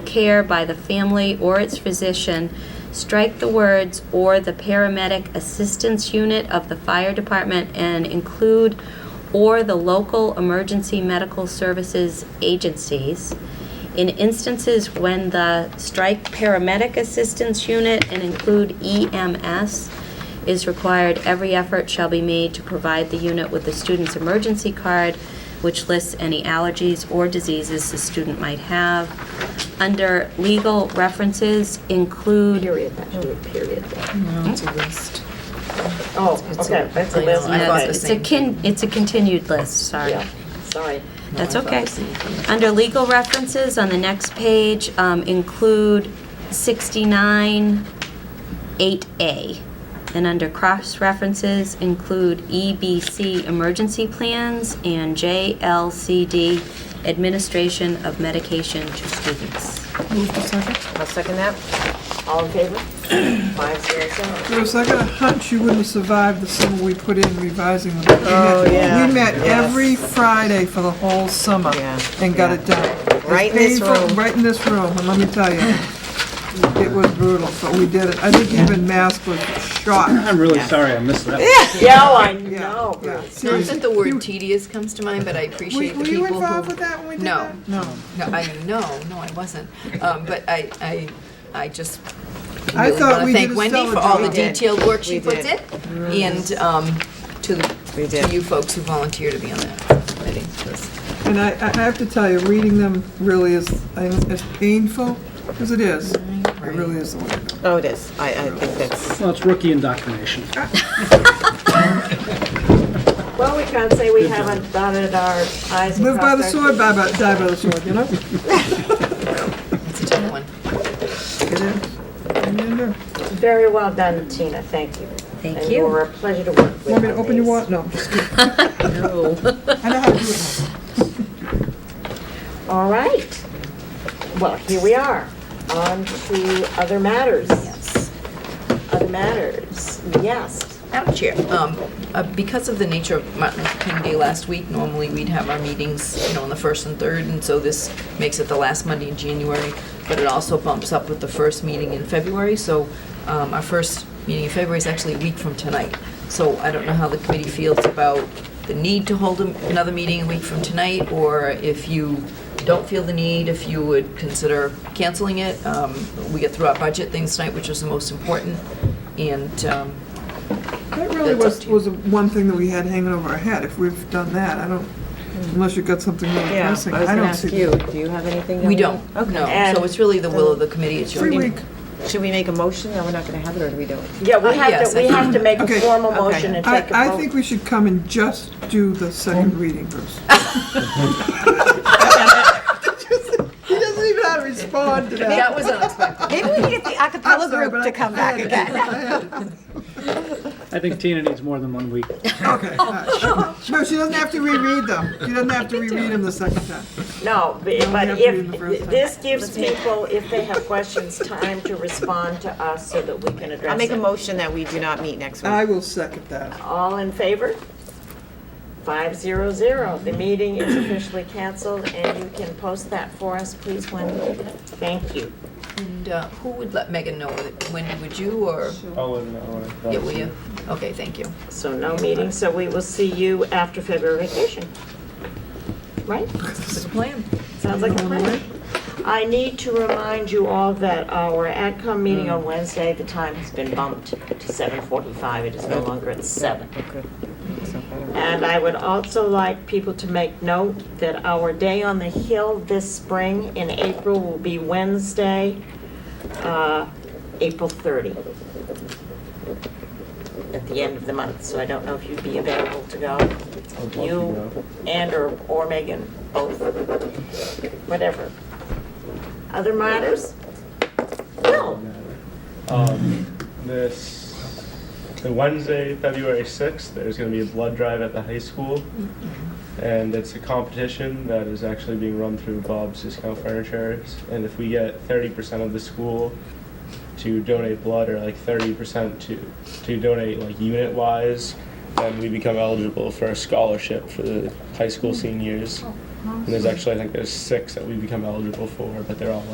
care by the family or its physician, strike the words "or the paramedic assistance unit of the fire department" and include "or the local emergency medical services agencies." In instances when the strike paramedic assistance unit and include E EMS is required, every effort shall be made to provide the unit with the student's emergency card, which lists any allergies or diseases the student might have. Under legal references include. Period, that should be a period. No, it's a list. Oh, It's a- okay, that's a I know, list, I Yeah, thought okay. the It's a same. kin, it's a continued list, sorry. Yeah, sorry. That's No, I thought okay. the same thing. Under legal references, on the next page, um, include 69, 8A. And under cross-references, include EBC emergency plans and JLCD administration of medication to students. Move to second. I'll second that. All in favor? Five, zero, zero. There was like a hunch you wouldn't have survived the summer we put in revising them. We Oh, met- yeah, We met yes. every Friday for the whole summer Yeah, and got it done. It's Right in this painful- room. Right in this room, and let me tell you, it was brutal, but we did it. I think even Mask was shocked. I'm really sorry I missed that. Yeah, I know, Yeah. Bruce. Not that the word tedious comes to mind, but I Were appreciate the were people you who. involved with that when we did No. that? No. No, I, no, no, I wasn't. Um, But I, I, I just I really thought want to we did thank a Wendy stellar for all the job. We did. detailed work We she puts in. did. And um, to, We to did. you folks who volunteer to be on that committee. 'cause- And I, I have to tell you, reading them really is, as painful as it is. It really is. the way to go. Oh, it is. I, I think that's. Well, it's rookie indoctrination. Well, we can't say we haven't dotted our i's and Live by the crossed our sword, die by, die by the sword, you know? It's a tough one. It is. And you do. Very well done, Tina, thank you. Thank And you. you were a pleasure to work with. Want me to on open your these. wallet? No, I'm just kidding. I know how to do it. All right. Well, here we are, on to other matters. Other matters, yes. Madam Chair, um, uh, because of the nature of Martin Luther King Day last week, normally we'd have our meetings, you know, on the first and third, and so this makes it the last Monday in January, but it also bumps up with the first meeting in February, so um, our first meeting in February is actually a week from tonight. So I don't know how the committee feels about the need to hold a- another meeting a week from tonight, or if you don't feel the need, if you would consider canceling it. Um, We get through our budget things tonight, which is the most important, and um, That That's really up was, to you. was the one thing that we had hanging over our head, if we've done that, I don't, unless you've got something really Yeah, I was pressing, I gonna don't ask see. you, do you have anything? that We don't, no. And- So it's really the will of the committee, it's your. Free week, Should we make a motion? No, we're not gonna have it, or do we do it? Yeah, Uh, we have yes, to, I we have think- to make a Okay. formal Okay. motion and I, take a vote. I think we should come and just do the second reading, Bruce. He doesn't even have to respond to that. That was unexpected. Maybe we need the acapella sorry, group but to I- come back again. I think Tina needs more than one week. Okay, all right. No, she doesn't have to reread them, she doesn't have to reread them the second time. No, b- but have to do the first if, time. this gives people, if they have questions, time to respond to us so that we can I'll address make a it. motion that we do not meet next week. I will second that. All in favor? Five zero zero. The meeting is officially canceled and you can post that for us, please, Wendy. Thank you. And uh, who would let Megan know? Wendy, would you or? Oh, Yeah, will you? Okay, thank you. So no meeting, so we will see you after February vacation. Right? That's the plan. Sounds like a plan. I need to remind you all that our AdCom meeting on Wednesday, the time has been bumped to seven forty-five. It is no longer at seven. And I would also like people to make note that our day on the Hill this spring in April will be Wednesday, uh, April 30, at the end of the month. So I don't know if you'd be available to go. You and or or Megan, both, whatever. Other matters? No. Um, this the Wednesday, February sixth, there's going to be a blood drive at the high school, and it's a competition that is actually being run through Bob's Discount Furniture. And if we get thirty percent of the school to donate blood, or like thirty percent to to donate like unit wise, then we become eligible for a scholarship for the high school seniors. And there's actually I think there's six that we become eligible for, but they're all